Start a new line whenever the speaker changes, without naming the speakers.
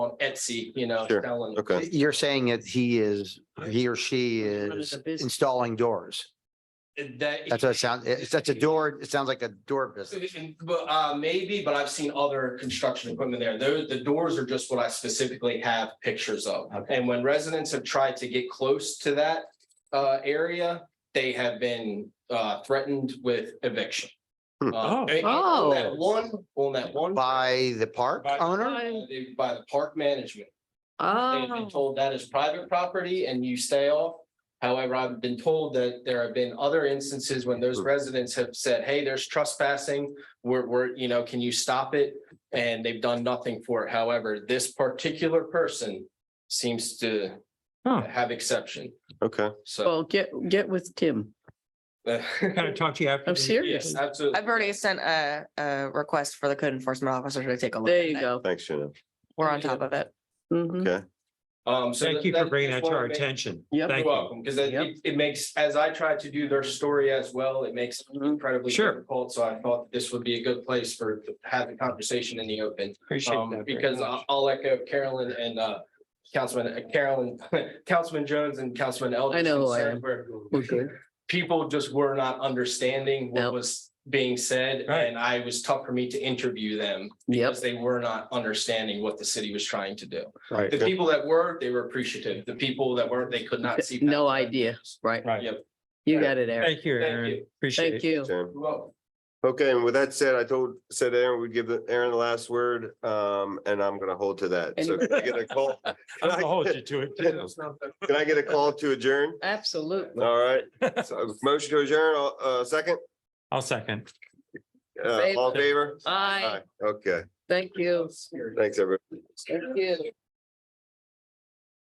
on Etsy, you know,
Sure.
selling.
Okay,
You're saying that he is, he or she
Running
is
a business.
installing doors.
That.
That's what it sounds, it's, that's a door, it sounds like a door business.
But uh, maybe, but I've seen other construction equipment there. There, the doors are just what I specifically have pictures of. And when residents have tried to get close to that uh area, they have been uh threatened with eviction. Uh,
Hmm.
Oh.
and- and on that
Oh.
One, on that one.
By the park
By-
owner?
uh, they- By the park management. They've been
Oh,
told that is private property and you stay off. However, I've been told that there have been other instances when those
Hmm.
residents have said, hey, there's trespassing. We're, we're, you know, can you stop it? And they've done nothing for it. However, this particular person seems to
Huh.
have exception,
okay.
so.
well, get, get with Tim. Oh,
Kind of talk to you after.
I'm
the-
serious.
Yes, absolutely.
I've already sent a, a request for the code enforcement officer to take a look.
There
at
you
it.
go.
Thanks, Shannon.
We're on top of it.
Mhm.
Okay.
Um, so
Thank
that-
you for
that's
bringing that
just
to
one
our
of the-
attention.
Yep.
Thank
You're
you.
welcome, because it,
Yep.
it- it makes, as I tried to do their story as well, it makes it
Mm-hmm.
incredibly
Sure.
difficult. So I thought this would be a good place for, to have the conversation in the open.
Appreciate that.
Um,
very
because
much.
I'll I'll echo Carolyn and, uh, Councilman, uh, Carolyn, Councilman Jones and Councilman Elder.
I know who I am. We're good.
People just were not understanding
No.
what was being said,
Right.
and I it was tough for me to interview them
Yep.
because they were not understanding what the city was trying to do.
Right.
The people that were, they were appreciative. The people that weren't, they could not see.
No idea. Right.
Right.
Yep.
You got it, Aaron.
Thank you,
Thank
Aaron.
you.
Appreciate
Thank
it.
you.
Shannon.
Well,
Okay, and with that said, I told, said Aaron, we'd give the- Aaron the last word, um, and I'm gonna hold to that. So can I get a call?
I'm gonna hold you to it. too.
Can I get a call to adjourn?
Absolutely.
All right, so motion to adjourn, all- uh, second,
I'll second.
uh, all in favor?
Aye.
Aye. Okay,
Thank you.
thanks, everyone.
Thank you.